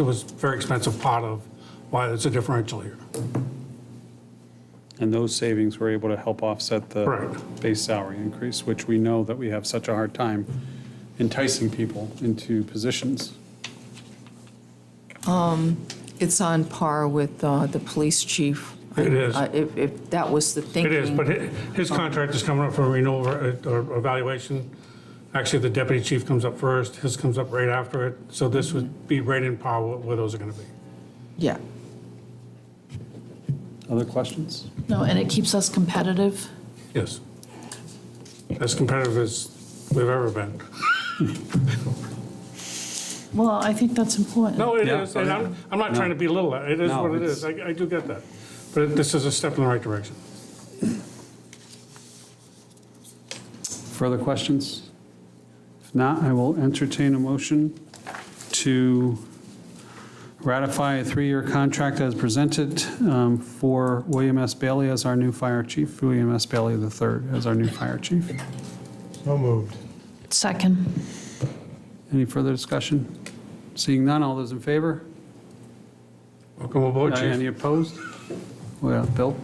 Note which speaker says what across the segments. Speaker 1: It was a very expensive part of why there's a differential here.
Speaker 2: And those savings were able to help offset the
Speaker 1: Correct.
Speaker 2: base salary increase, which we know that we have such a hard time enticing people into positions.
Speaker 3: It's on par with uh, the police chief.
Speaker 1: It is.
Speaker 3: Uh, If, if that was the
Speaker 1: It
Speaker 3: thinking.
Speaker 1: is, but hi- his contract is coming up for renewal or or evaluation. Actually, the deputy chief comes up first, his comes up right after it, so this would be right in par with where those are going to be.
Speaker 3: Yeah.
Speaker 2: Other questions?
Speaker 4: No, and it keeps us competitive.
Speaker 1: Yes. As competitive as we've ever been.
Speaker 4: Well, I think that's important.
Speaker 1: No, it
Speaker 2: Yeah,
Speaker 1: is, and I'm, I'm not trying to belittle that, it is
Speaker 2: No,
Speaker 1: what it
Speaker 2: it's-
Speaker 1: is, I, I do get that. But this is a step in the right direction.
Speaker 2: Further questions? If not, I will entertain a motion to ratify a three-year contract as presented um, for William S. Bailey as our new fire chief, William S. Bailey III as our new fire chief.
Speaker 5: So moved.
Speaker 4: Second.
Speaker 2: Any further discussion? Seeing none, all those in favor?
Speaker 1: Welcome aboard,
Speaker 2: Aye, Any
Speaker 1: chief.
Speaker 2: opposed? Well, Bill?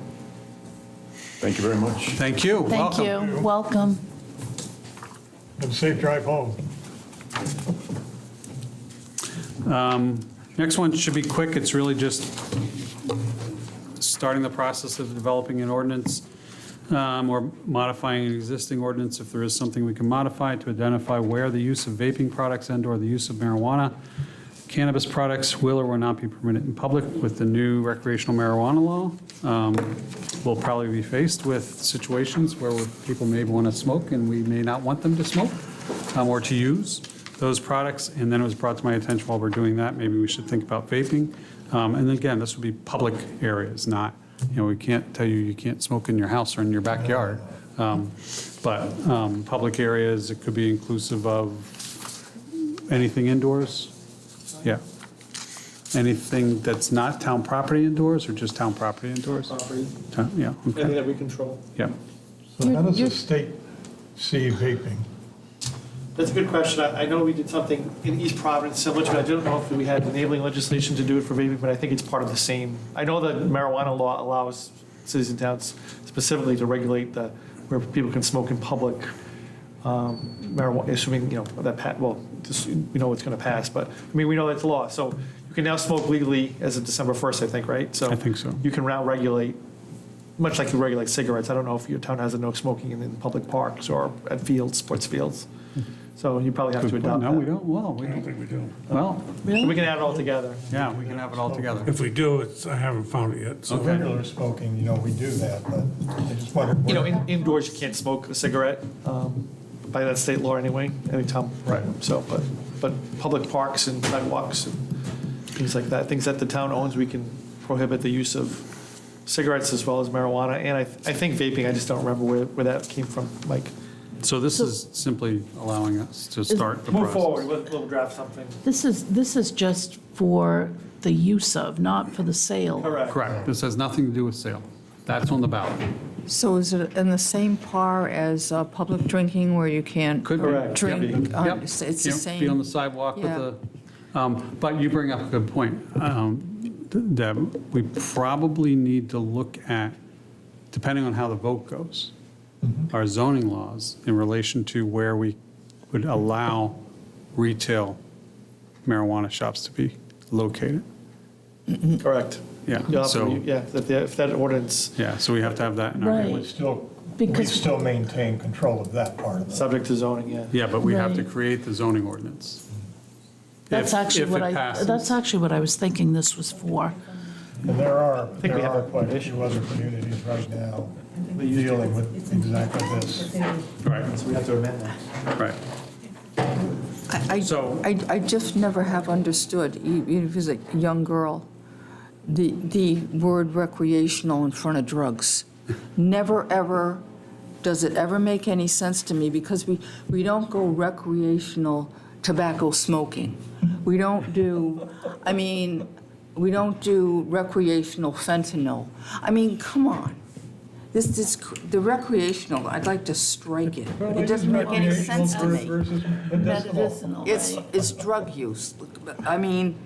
Speaker 6: Thank you very much.
Speaker 2: Thank you.
Speaker 4: Thank
Speaker 2: Welcome.
Speaker 4: you. Welcome.
Speaker 5: Have a safe drive home.
Speaker 2: Um, Next one should be quick. It's really just starting the process of developing an ordinance um, or modifying an existing ordinance if there is something we can modify to identify where the use of vaping products and/or the use of marijuana, cannabis products will or will not be permitted in public with the new recreational marijuana law. Um, We'll probably be faced with situations where people may want to smoke and we may not want them to smoke um, or to use those products. And then it was brought to my attention while we're doing that, maybe we should think about vaping. Um, And again, this would be public areas, not, you know, we can't tell you you can't smoke in your house or in your backyard. Um, But um, public areas, it could be inclusive of anything indoors. Yeah. Anything that's not town property indoors or just town property indoors? Property. Yeah,
Speaker 7: Anything
Speaker 2: okay,
Speaker 7: that we control?
Speaker 2: yeah.
Speaker 5: So
Speaker 4: You-
Speaker 5: how does
Speaker 4: you-
Speaker 5: the state see vaping?
Speaker 7: That's a good question. I I know we did something in East Providence similar to it. I don't know if we had enabling legislation to do it for vaping, but I think it's part of the same. I know that marijuana law allows cities and towns specifically to regulate the, where people can smoke in public um, marijuana, assuming, you know, that, pa- well, just- we know it's going to pass, but, I mean, we know that's law. So you can now smoke legally as of December 1st, I think, right? So
Speaker 2: I think so.
Speaker 7: You can now regulate much like you regulate cigarettes, I don't know if your town has a no smoking in, in public parks or at fields, sports fields. So you probably have to
Speaker 2: Good point.
Speaker 7: adopt
Speaker 2: No, we
Speaker 7: that.
Speaker 2: don't, well, we,
Speaker 1: I don't think we do.
Speaker 2: well,
Speaker 7: We can add it all together.
Speaker 2: yeah, we can have it all together.
Speaker 1: If we do, it's, I haven't found it yet, so.
Speaker 2: Okay.
Speaker 5: Regular smoking, you know, we do that, but I just wondered.
Speaker 7: You know,
Speaker 5: where-
Speaker 7: in- indoors, you can't smoke a cigarette, um, by that state law anyway, any town.
Speaker 5: Right.
Speaker 7: So, but, but public parks and sidewalks and things like that, things that the town owns, we can prohibit the use of cigarettes as well as marijuana. And I, I think vaping, I just don't remember where, where that came from, Mike.
Speaker 2: So this is simply allowing us to start the process.
Speaker 7: Move forward, we'll, we'll draft something.
Speaker 4: This is, this is just for the use of, not for the sale.
Speaker 7: Correct.
Speaker 2: Correct. This has nothing to do with sale. That's on the ballot.
Speaker 3: So is it in the same par as uh, public drinking where you can't
Speaker 2: Could be.
Speaker 7: Correct.
Speaker 3: drink? uh,
Speaker 2: Yep.
Speaker 3: It's it's the
Speaker 2: Can't Be on the
Speaker 3: same.
Speaker 2: sidewalk with
Speaker 3: Yeah.
Speaker 2: the, um, but you bring up a good point, um, Deb. We probably need to look at, depending on how the vote goes,
Speaker 7: Mm-hmm.
Speaker 2: our zoning laws in relation to where we would allow retail marijuana shops to be located.
Speaker 7: Correct.
Speaker 2: Yeah,
Speaker 7: You'll have to re-
Speaker 2: so,
Speaker 7: Yeah, if the- if that ordinance,
Speaker 2: yeah, so we have to have that in our
Speaker 4: Right.
Speaker 2: language.
Speaker 5: Still, we
Speaker 4: Because-
Speaker 5: still maintain control of that part of it.
Speaker 7: subject to zoning, yeah.
Speaker 2: Yeah, but we have to
Speaker 4: Right.
Speaker 2: create the zoning ordinance.
Speaker 4: That's
Speaker 2: If-
Speaker 4: actually
Speaker 2: if
Speaker 4: what
Speaker 2: it
Speaker 4: I,
Speaker 2: passes.
Speaker 4: that's actually what I was thinking this was for.
Speaker 5: And there are,
Speaker 7: we
Speaker 5: there
Speaker 7: have
Speaker 5: are
Speaker 7: a-
Speaker 5: quite a few other communities right now dealing with exactly this.
Speaker 2: Right,
Speaker 7: So we have to amend that.
Speaker 2: right.
Speaker 3: I- I-
Speaker 2: So-
Speaker 3: I, I just never have understood, e- even if it's a young girl, the, the word recreational in front of drugs. Never, ever, does it ever make any sense to me, because we, we don't go recreational tobacco smoking. We don't do, I mean, we don't do recreational fentanyl. I mean, come on. This, this, the recreational, I'd like to strike it. It doesn't make any sense to me.
Speaker 5: Recreational versus medicinal.
Speaker 4: Medicinal,
Speaker 3: It's,
Speaker 4: right.
Speaker 3: it's drug use. I mean,